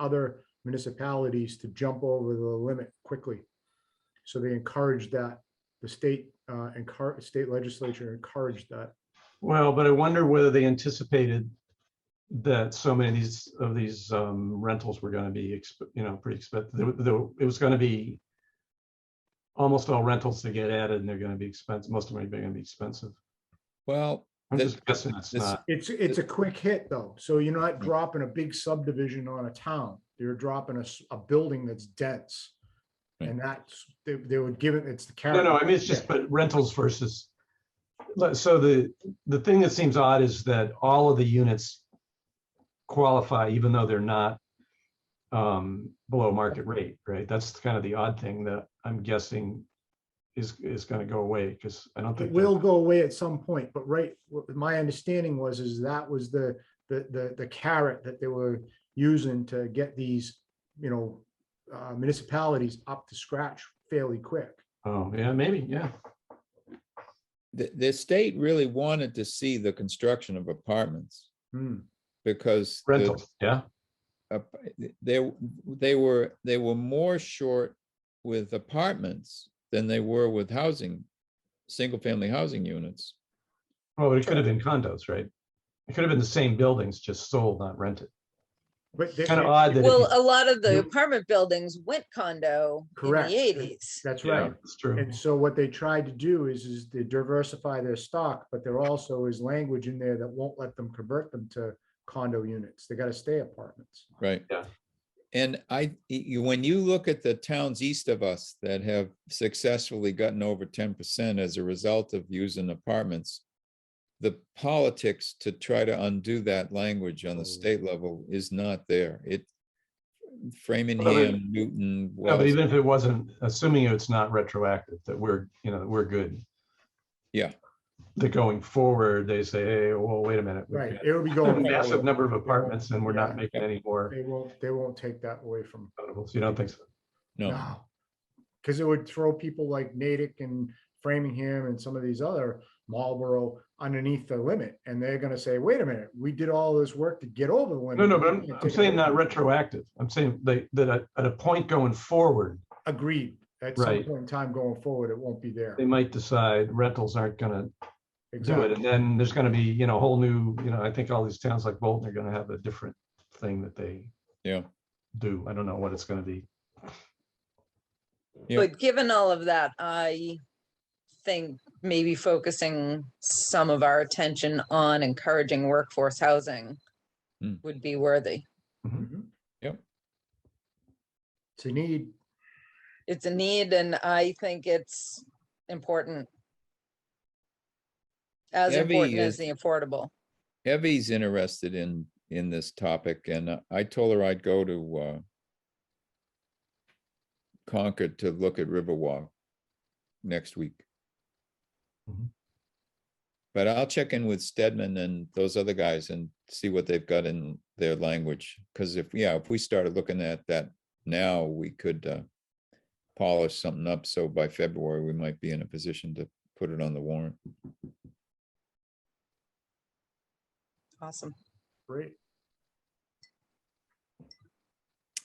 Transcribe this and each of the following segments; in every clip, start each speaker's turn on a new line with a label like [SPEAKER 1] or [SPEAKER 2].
[SPEAKER 1] other municipalities to jump over the limit quickly. So they encouraged that, the state, uh, encouraged, state legislature encouraged that.
[SPEAKER 2] Well, but I wonder whether they anticipated that so many of these, of these um, rentals were gonna be, exp- you know, pretty expensive. It was gonna be almost all rentals that get added and they're gonna be expensive, most of them are gonna be expensive.
[SPEAKER 3] Well,
[SPEAKER 2] I'm
[SPEAKER 3] This-
[SPEAKER 2] just guessing it's
[SPEAKER 3] this-
[SPEAKER 2] not.
[SPEAKER 1] It's, it's a quick hit though, so you're not dropping a big subdivision on a town, you're dropping a, s- a building that's dense. And that's, they, they would give it, it's the.
[SPEAKER 2] No, no,
[SPEAKER 1] character.
[SPEAKER 2] I mean, it's just, but rentals versus, like, so the, the thing that seems odd is that all of the units qualify even though they're not um, below market rate, right? That's kind of the odd thing that I'm guessing is, is gonna go away, because I don't
[SPEAKER 1] It
[SPEAKER 2] think. that-
[SPEAKER 1] will go away at some point, but right, what my understanding was, is that was the, the, the, the carrot that they were using to get these, you know, uh, municipalities up to scratch fairly quick.
[SPEAKER 2] Oh, yeah, maybe, yeah.
[SPEAKER 3] the, the state really wanted to see the construction of apartments
[SPEAKER 1] Hmm,
[SPEAKER 3] because the-
[SPEAKER 2] Rentals, yeah,
[SPEAKER 3] ap- they, they were, they were more short with apartments than they were with housing, single-family housing units.
[SPEAKER 2] well, it could have been condos, right? It could have been the same buildings, just sold, not rented.
[SPEAKER 1] But they-
[SPEAKER 2] Kind of odd that. if you-
[SPEAKER 4] Well, a lot of the
[SPEAKER 2] you-
[SPEAKER 4] apartment buildings went condo in
[SPEAKER 1] Correct.
[SPEAKER 4] the eighties.
[SPEAKER 1] that's
[SPEAKER 2] Yeah,
[SPEAKER 1] right.
[SPEAKER 2] It's true.
[SPEAKER 1] And so what they tried to do is, is to diversify their stock, but there also is language in there that won't let them convert them to condo units. They gotta stay apartments.
[SPEAKER 3] Right.
[SPEAKER 2] Yeah.
[SPEAKER 3] And I, you, when you look at the towns east of us that have successfully gotten over ten percent as a result of using apartments, the politics to try to undo that language on
[SPEAKER 2] Mm.
[SPEAKER 3] the state level is not there. It
[SPEAKER 2] Well,
[SPEAKER 3] Framingham, Newton,
[SPEAKER 2] No, but
[SPEAKER 3] Wells,
[SPEAKER 2] even if it wasn't, assuming it's not retroactive, that we're, you know, that we're good.
[SPEAKER 3] Yeah.
[SPEAKER 2] That going forward, they say, hey, well, wait a minute. we've
[SPEAKER 1] Right,
[SPEAKER 2] got
[SPEAKER 1] it would be
[SPEAKER 2] a
[SPEAKER 1] going.
[SPEAKER 2] Massive
[SPEAKER 1] forward.
[SPEAKER 2] number of apartments and we're
[SPEAKER 1] Yeah.
[SPEAKER 2] not making any more.
[SPEAKER 1] They won't, they won't take that away from.
[SPEAKER 2] condos." You don't think so?
[SPEAKER 3] no,
[SPEAKER 1] Because it would throw people like Natick and Framingham and some of these other Marlboro underneath the limit. And they're gonna say, wait a minute, we did all this work to get over the limit.
[SPEAKER 2] No, no,
[SPEAKER 1] we
[SPEAKER 2] but I'm,
[SPEAKER 1] can't
[SPEAKER 2] I'm
[SPEAKER 1] take it
[SPEAKER 2] saying
[SPEAKER 1] away."
[SPEAKER 2] not retroactive. I'm saying they, that at, at a point going forward,
[SPEAKER 1] Agreed. At some
[SPEAKER 2] Right.
[SPEAKER 1] point in time going forward, it won't be there.
[SPEAKER 2] they might decide rentals aren't gonna do it.
[SPEAKER 1] Exactly.
[SPEAKER 2] And then there's gonna be, you know, a whole new, you know, I think all these towns like Bolton are gonna have a different thing that they
[SPEAKER 3] yeah.
[SPEAKER 2] do. I don't know what it's gonna be.
[SPEAKER 3] Yeah.
[SPEAKER 4] But given all of that, I think maybe focusing some of our attention on encouraging workforce housing
[SPEAKER 3] Hmm.
[SPEAKER 4] would be worthy.
[SPEAKER 1] Mhm.
[SPEAKER 3] Yep.
[SPEAKER 1] It's a need.
[SPEAKER 4] It's a need and I think it's important. As
[SPEAKER 3] Debbie
[SPEAKER 4] important as
[SPEAKER 3] is-
[SPEAKER 4] the affordable.
[SPEAKER 3] Evie's interested in, in this topic and uh, I told her I'd go to, uh, Concord to look at Riverwalk next week.
[SPEAKER 2] Mhm.
[SPEAKER 3] But I'll check in with Stedman and those other guys and see what they've got in their language. Cause if, yeah, if we started looking at that now, we could, uh, polish something up. So by February, we might be in a position to put it on the warrant.
[SPEAKER 4] Awesome.
[SPEAKER 1] Great.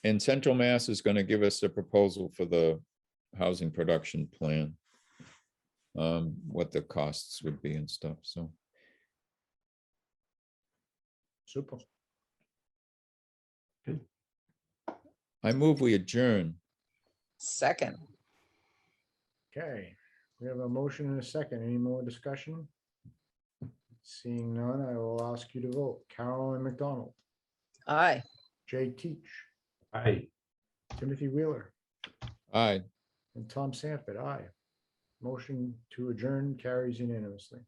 [SPEAKER 3] And Central Mass is gonna give us a proposal for the housing production plan. Um, what the costs would be and stuff, so.
[SPEAKER 1] Super.
[SPEAKER 3] I move we adjourn.
[SPEAKER 4] Second,
[SPEAKER 1] Okay. We have a motion and a second. Any more discussion? Seeing none, I will ask you to vote. Carolyn McDonald,
[SPEAKER 4] aye.
[SPEAKER 1] Jay Teach,
[SPEAKER 2] Right.
[SPEAKER 1] Timothy Wheeler.
[SPEAKER 3] Aye,
[SPEAKER 1] And Tom Sanford, aye. Motion to adjourn carries unanimously.